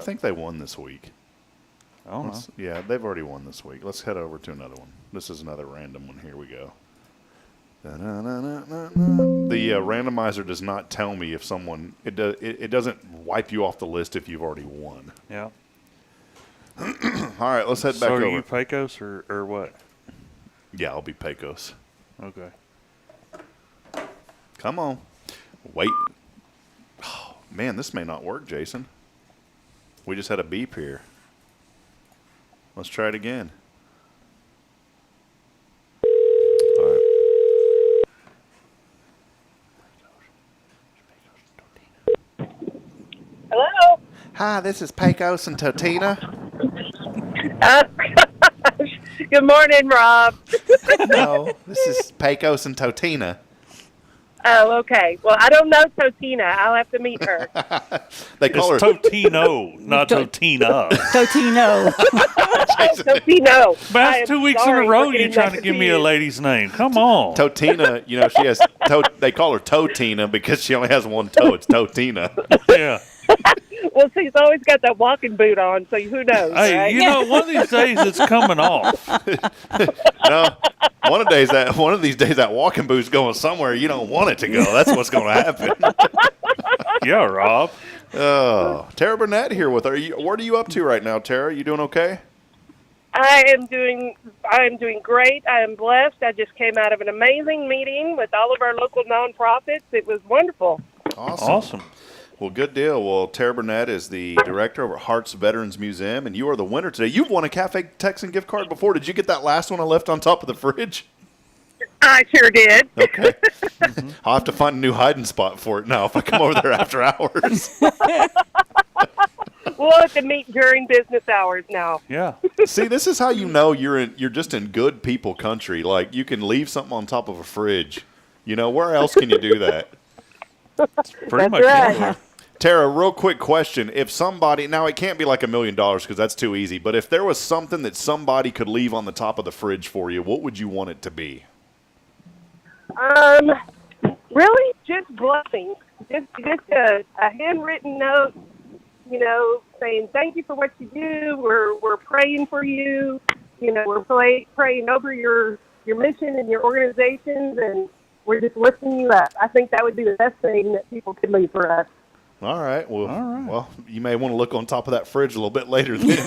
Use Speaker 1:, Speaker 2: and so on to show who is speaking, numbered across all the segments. Speaker 1: I think they won this week.
Speaker 2: I don't know.
Speaker 1: Let's- Yeah, they've already won this week. Let's head over to another one. This is another random one. Here we go. Da-na-na-na-na-na. The uh, randomizer does not tell me if someone it does it, it doesn't wipe you off the list if you've already won.
Speaker 2: Yeah.
Speaker 1: All right, let's head back
Speaker 2: so are
Speaker 1: over.
Speaker 2: you Pecos or, or what?
Speaker 1: yeah, I'll be Pecos.
Speaker 2: Okay.
Speaker 1: Come on. Wait. Oh, man, this may not work, Jason. We just had a beep here. Let's try it again. All right.
Speaker 3: Hello.
Speaker 1: Hi, this is Pecos and Totina.
Speaker 3: Uh, good morning, Rob.
Speaker 1: no, this is Pecos and Totina.
Speaker 3: Oh, okay. Well, I don't know Totina. I'll have to meet her.
Speaker 1: They
Speaker 2: It's
Speaker 1: call her
Speaker 2: Totino, not
Speaker 4: To-
Speaker 2: Totina.
Speaker 4: Totino.
Speaker 3: Totino. I am
Speaker 2: That's two weeks in a
Speaker 3: sorry for
Speaker 2: row you're
Speaker 3: getting
Speaker 2: trying
Speaker 3: that
Speaker 2: to give me a
Speaker 3: confused.
Speaker 2: lady's name. Come on.
Speaker 1: Totina. You know, she has. To, they call her Totina because she only has one toe. It's Totina.
Speaker 2: yeah.
Speaker 3: Well, she's always got that walking boot on, so who knows,
Speaker 2: Hey,
Speaker 3: right?
Speaker 2: you know, one of these days it's coming off.
Speaker 1: no, one of days that one of these days that walking boot's going somewhere you don't want it to go. That's what's going to happen.
Speaker 2: Yeah, Rob.
Speaker 1: Oh, Tara Burnett here with her. You, what are you up to right now, Tara? You doing okay?
Speaker 3: I am doing. I am doing great. I am blessed. I just came out of an amazing meeting with all of our local nonprofits. It was wonderful.
Speaker 1: Awesome.
Speaker 2: Awesome.
Speaker 1: Well, good deal. Well, Tara Burnett is the director over at Hearts Veterans Museum, and you are the winner today. You've won a Cafe Texan gift card before. Did you get that last one I left on top of the fridge?
Speaker 3: I sure did.
Speaker 1: Okay. I'll have to find a new hiding spot for it now if I come over there after hours.
Speaker 3: We'll have to meet during business hours now.
Speaker 2: Yeah.
Speaker 1: See, this is how you know you're in you're just in good people country. Like you can leave something on top of a fridge. You know, where else can you do that?
Speaker 2: Pretty
Speaker 3: That's
Speaker 2: much.
Speaker 3: right.
Speaker 2: anywhere.
Speaker 1: Tara, real quick question. If somebody now it can't be like a million dollars because that's too easy, but if there was something that somebody could leave on the top of the fridge for you, what would you want it to be?
Speaker 3: Um, really, just blessings. Just, just a, a handwritten note, you know, saying thank you for what you do. We're we're praying for you. You know, we're play, praying over your your mission and your organizations, and we're just lifting you up. I think that would be the best thing that people could leave for us.
Speaker 1: All right. Well,
Speaker 2: All right.
Speaker 1: well, you may want to look on top of that fridge a little bit later then.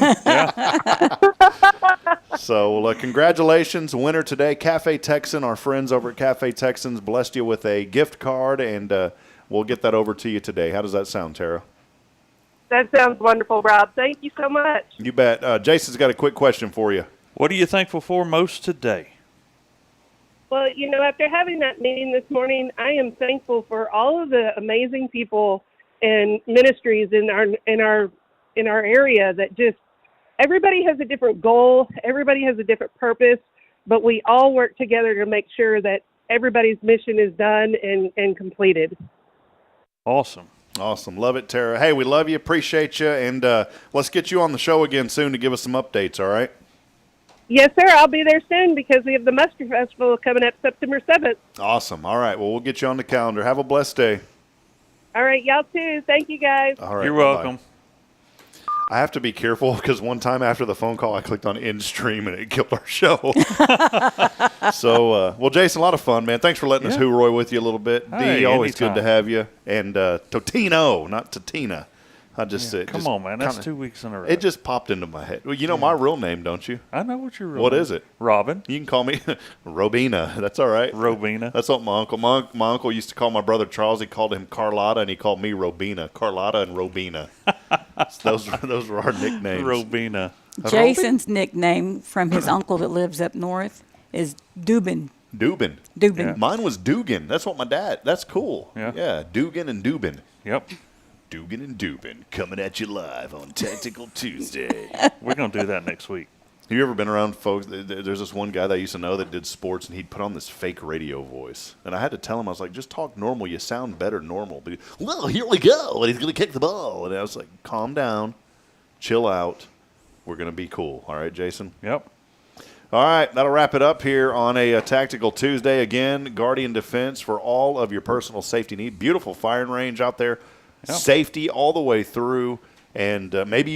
Speaker 1: so, well, uh, congratulations, winner today, Cafe Texan. Our friends over at Cafe Texans blessed you with a gift card, and uh, we'll get that over to you today. How does that sound, Tara?
Speaker 3: That sounds wonderful, Rob. Thank you so much.
Speaker 1: You bet. Uh, Jason's got a quick question for you.
Speaker 2: What are you thankful for most today?
Speaker 3: Well, you know, after having that meeting this morning, I am thankful for all of the amazing people and ministries in our in our in our area that just everybody has a different goal, everybody has a different purpose, but we all work together to make sure that everybody's mission is done and and completed.
Speaker 2: Awesome.
Speaker 1: Awesome. Love it, Tara. Hey, we love you. Appreciate you. And uh, let's get you on the show again soon to give us some updates, all right?
Speaker 3: Yes, sir. I'll be there soon because we have the Mustard Festival coming up September 7th.
Speaker 1: Awesome. All right. Well, we'll get you on the calendar. Have a blessed day.
Speaker 3: All right, y'all too. Thank you guys.
Speaker 1: All right.
Speaker 2: You're
Speaker 1: bye-bye.
Speaker 2: welcome.
Speaker 1: I have to be careful because one time after the phone call, I clicked on end stream and it killed our show. so, uh, well, Jason, a lot of fun, man. Thanks for letting us
Speaker 2: Yeah.
Speaker 1: hooroi with you a little bit. D,
Speaker 2: Hey,
Speaker 1: always good to
Speaker 2: anytime.
Speaker 1: have you. And uh, Totino, not Totina. I just it
Speaker 2: Come
Speaker 1: just
Speaker 2: on, man. That's
Speaker 1: kinda-
Speaker 2: two weeks in a row.
Speaker 1: It just popped into my head. Well, you know my real name, don't you?
Speaker 2: I know what you're.
Speaker 1: What
Speaker 2: Robin.
Speaker 1: is it?
Speaker 2: Robin.
Speaker 1: You can call me Robina. That's all right.
Speaker 2: Robina.
Speaker 1: That's what my uncle. My, my uncle used to call my brother Charles. He called him Carlotta, and he called me Robina. Carlotta and Robina. So those were- those were our nicknames.
Speaker 2: Robina.
Speaker 4: Jason's nickname from his uncle that lives up north is Dubin.
Speaker 1: Dubin.
Speaker 4: Dubin.
Speaker 1: Mine was Dugan. That's what my dad. That's cool.
Speaker 2: Yeah.
Speaker 1: Dugan and Dubin.
Speaker 2: Yep.
Speaker 1: Dugan and Dubin coming at you live on Tactical Tuesday.
Speaker 2: We're gonna do that next week.
Speaker 1: Have you ever been around folks? th- th- There's this one guy that I used to know that did sports, and he'd put on this fake radio voice. And I had to tell him, I was like, just talk normal. You sound better normal. But he, well, here we go. And he's going to kick the ball. And I was like, calm down, chill out. We're going to be cool. All right, Jason?
Speaker 2: Yep.
Speaker 1: All right, that'll wrap it up here on a, uh Tactical Tuesday. Again, Guardian Defense for all of your personal safety need. Beautiful firing range out there.
Speaker 2: Yeah.
Speaker 1: Safety all the way through. and uh, maybe